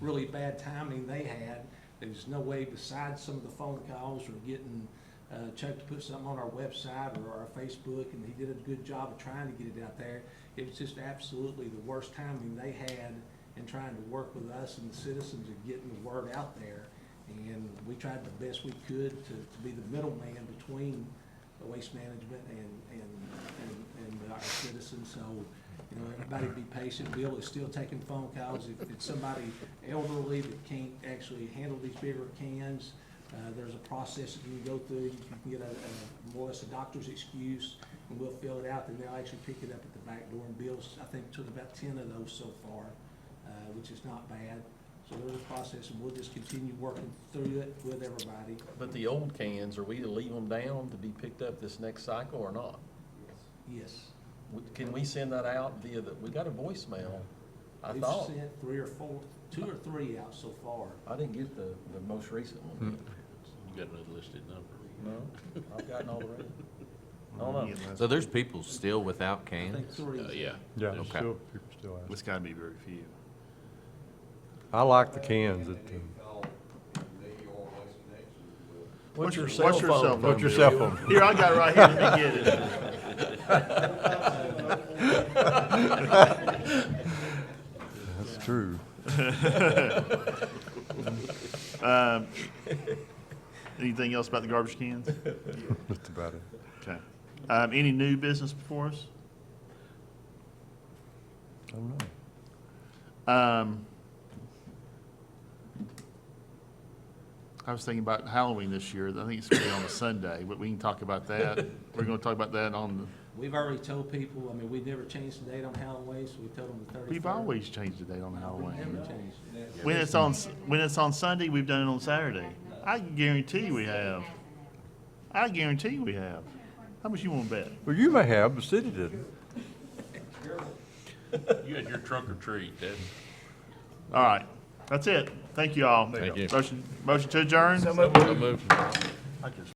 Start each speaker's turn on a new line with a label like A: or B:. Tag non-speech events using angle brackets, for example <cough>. A: really bad timing they had. There's no way besides some of the phone calls or getting uh, Chuck to put something on our website or our Facebook, and he did a good job of trying to get it out there. It was just absolutely the worst timing they had in trying to work with us and the citizens and getting the word out there. And we tried the best we could to, to be the middleman between the waste management and, and, and, and our citizens. So, you know, everybody be patient. Bill is still taking phone calls. If it's somebody elderly that can't actually handle these bigger cans, uh, there's a process that you can go through. You can get a, a, more or less a doctor's excuse, and we'll fill it out, and they'll actually pick it up at the back door. And Bill's, I think, took about ten of those so far, uh, which is not bad. So there's a process, and we'll just continue working through it with everybody.
B: But the old cans, are we to leave them down to be picked up this next cycle or not?
A: Yes.
B: W- Can we send that out via the, we got a voicemail, I
A: We've
B: thought.
A: sent three or four, two or three out so far.
B: I didn't get the, the most recent one.
C: You got an unlisted number.
B: No, I've gotten all the rest. I don't know.
D: So there's people still without
A: I think
D: cans?
A: three.
C: Uh, yeah.
E: Yeah,
C: There's-
D: Okay.
E: still, people still ask.
C: It's gotta be very few.
E: I like the cans that, uh,
B: What's your cell
C: what's your cell
B: phone?
C: phone?
E: what's your
C: Bill.
E: cell phone?
C: <laughs> Here, I got it right here, let me get it. <laughs>
E: That's true.
C: Um, Anything else about the garbage cans?
E: That's about it.
C: Okay. Um, any new business before us?
E: I don't know.
C: Um, I was thinking about Halloween this year. I think it's gonna be on a Sunday, but we can talk about <laughs> that. We're gonna talk about that on
A: We've already told people, I mean, we've never changed the date on Halloween, so we told them the
C: the,
A: 31st.
C: we've always changed the date on
A: We've never
C: Halloween.
A: changed it.
C: When it's on, when it's on Sunday, we've done it on Saturday. I can guarantee we have. I guarantee we have. How much you wanna bet?
E: Well, you may have, the city didn't.
F: You had your trunk or treat, that's.
C: All right, that's it. Thank you all.
F: Thank you.
C: Motion, motion to adjourn?
F: I moved.
C: I just-